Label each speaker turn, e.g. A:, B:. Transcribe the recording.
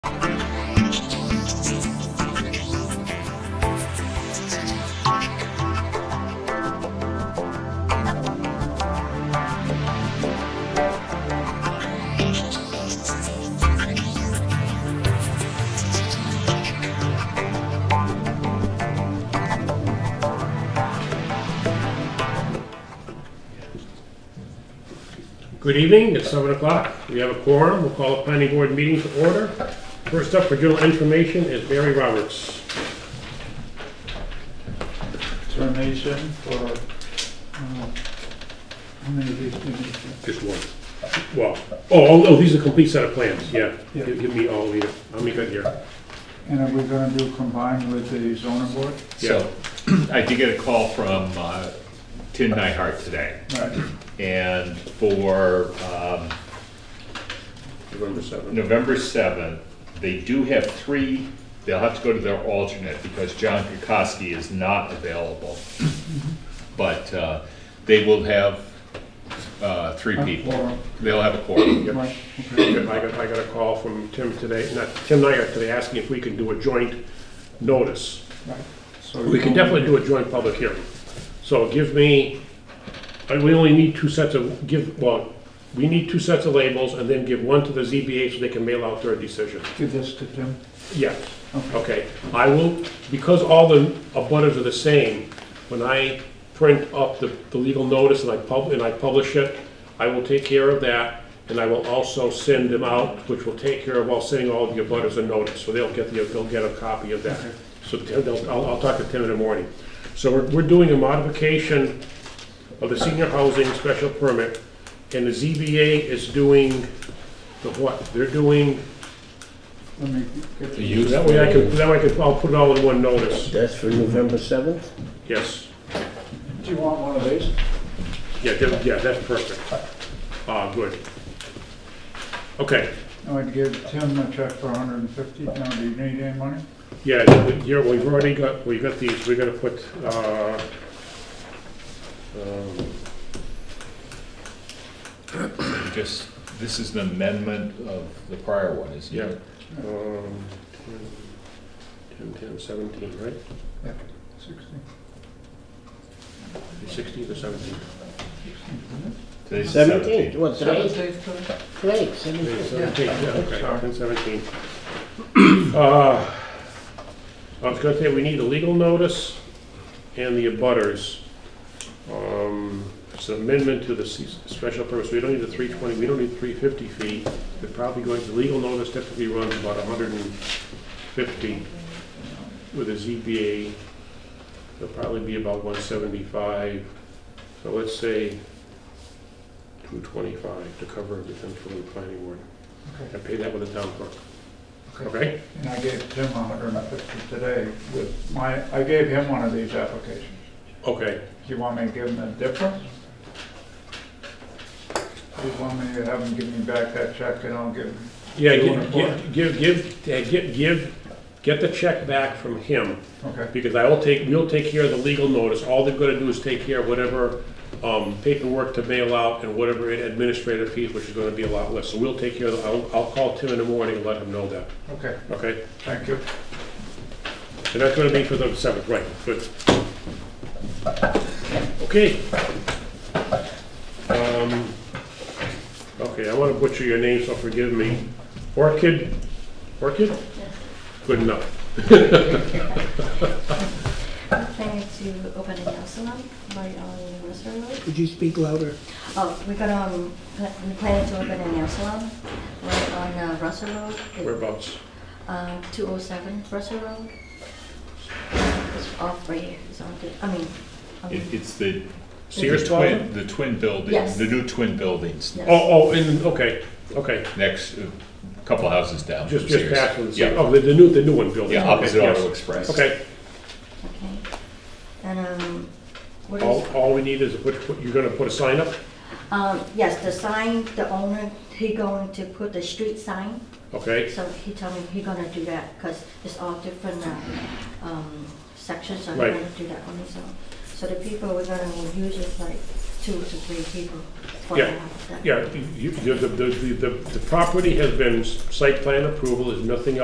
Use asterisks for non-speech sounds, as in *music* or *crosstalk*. A: Good evening, it's seven o'clock. We have a quorum, we'll call a planning board meeting to order. First up for general information is Barry Roberts.
B: termination for, uh, how many of these do you need?
A: Just one. Well, oh, oh, oh, these are a complete set of plans, yeah.
B: Yeah.
A: Give give me all of these, I'll make it here.
B: And are we gonna do combined with the zoning board?
A: Yeah.
C: So, *clears throat* I did get a call from uh, Tim Nyhart today,
B: Right,
C: and for um,
A: November seventh.
C: November 7th, they do have three, they'll have to go to their alternate because John Kukoski is not available.
A: Mm-hmm.
C: But uh, they will have uh, three
B: A
C: people.
B: quorum.
C: They'll have a quorum.
B: right, okay.
A: I got, I got a call from Tim today, not, Tim and I got today asking if we can do a joint notice.
B: right. So
A: We can definitely do a joint public hearing. So give me, I- we only need two sets of, give, well, we need two sets of labels and then give one to the ZBA so they can mail out their decision.
B: Give this to Tim.
A: Yes,
B: Okay.
A: okay. I will, because all the abutters are the same, when I print up the, the legal notice and I pub, and I publish it, I will take care of that, and I will also send them out, which will take care of all, sending all of your abutters a notice, so they'll get the, they'll get a copy of that. So Tim, they'll- I'll, I'll talk to Tim in the morning. So we're, we're doing a modification of the senior housing special permit, and the ZBA is doing the what? They're doing
B: Let me get the,
C: use
A: that way I can, that way I can, I'll put it all in one notice.
D: That's for November 7th?
A: Yes,
B: do you want one of these?
A: yeah, that- yeah, that's perfect. Ah, good. Okay,
B: I would give Tim a check for hundred and fifty. Now, do you need any money?
A: yeah, you're, we've already got, we got these, we're gonna put, uh, um,
C: Just, this is an amendment of the prior one, isn't
A: yeah.
C: it?
A: um, 10, 10, 17, right?
B: Yeah. Sixty.
A: Sixteen or seventeen?
C: Today's the
D: 17th,
C: 17th.
D: what, today? Today, 17th.
A: Seventeen, yeah, okay,
B: Sorry.
A: 10, 17. Uh, I was gonna say, we need a legal notice and the abutters. Um, It's an amendment to the se- special purpose, we don't need the 320, we don't need 350 feet. They're probably going, the legal notice typically runs about 150 with a ZBA. It'll probably be about 175, so let's say 225 to cover everything for the planning board.
B: Okay.
A: I pay that with the town clerk.
B: Okay.
A: Okay?
B: And I gave Tim hundred and fifty today with my, I gave him one of these applications.
A: Okay.
B: Do you want me to give him the difference? Do you want me to have him give me back that check and I'll give him
A: Yeah,
B: You
A: gi-
B: want a
A: gi- give, give, uh, gi- give, get the check back from him,
B: Okay,
A: because I will take, we'll take care of the legal notice. All they've got to do is take care of whatever um, paperwork to mail out and whatever administrative fees, which is going to be a lot less. So we'll take care of, the- I'll, I'll call Tim in the morning and let him know that,
B: okay,
A: okay?
B: thank you.
A: And that's going to be for the seventh, right, good. Okay. Um, Okay, I want to butcher your name, so forgive me. Orchid, Orchid? Good enough.
E: I'm planning to open a nail salon right on Worcester Road.
D: Could you speak louder?
E: Oh, we got, um, pla- we planning to open a nail salon right on uh, Russell Road.
A: Whereabouts?
E: Uh, 207 Russell Road. It's off right here, it's on the, I mean, I mean,
C: It- It's the
A: Sears
C: the
A: Plaza?
C: twin- The twin building,
E: Yes.
C: the new twin buildings
E: yes.
A: Oh, oh, in, okay, okay.
C: next, uh, couple houses down.
A: Just,
C: from
A: just
C: Sears.
A: past the,
C: Yeah,
A: oh, the the new, the new one building.
C: yeah,
A: Okay,
C: opposite
A: yes.
C: Auto Express.
A: Okay,
E: Okay. And, um, what
A: all,
E: is,
C: Oh.
A: all we need is, a put- put- you're going to put a sign up?
E: um, yes, the sign, the owner, he going to put the street sign.
A: Okay,
E: So he told me he gonna do that, because it's all different, uh, um, sections, so he
A: Right.
E: gonna do that on his own. So the people we're gonna use is like two to three people for
A: Yeah.
E: that. that-
A: yeah, you- you- the, the, the- the the property has been, s- site plan approval, there's nothing else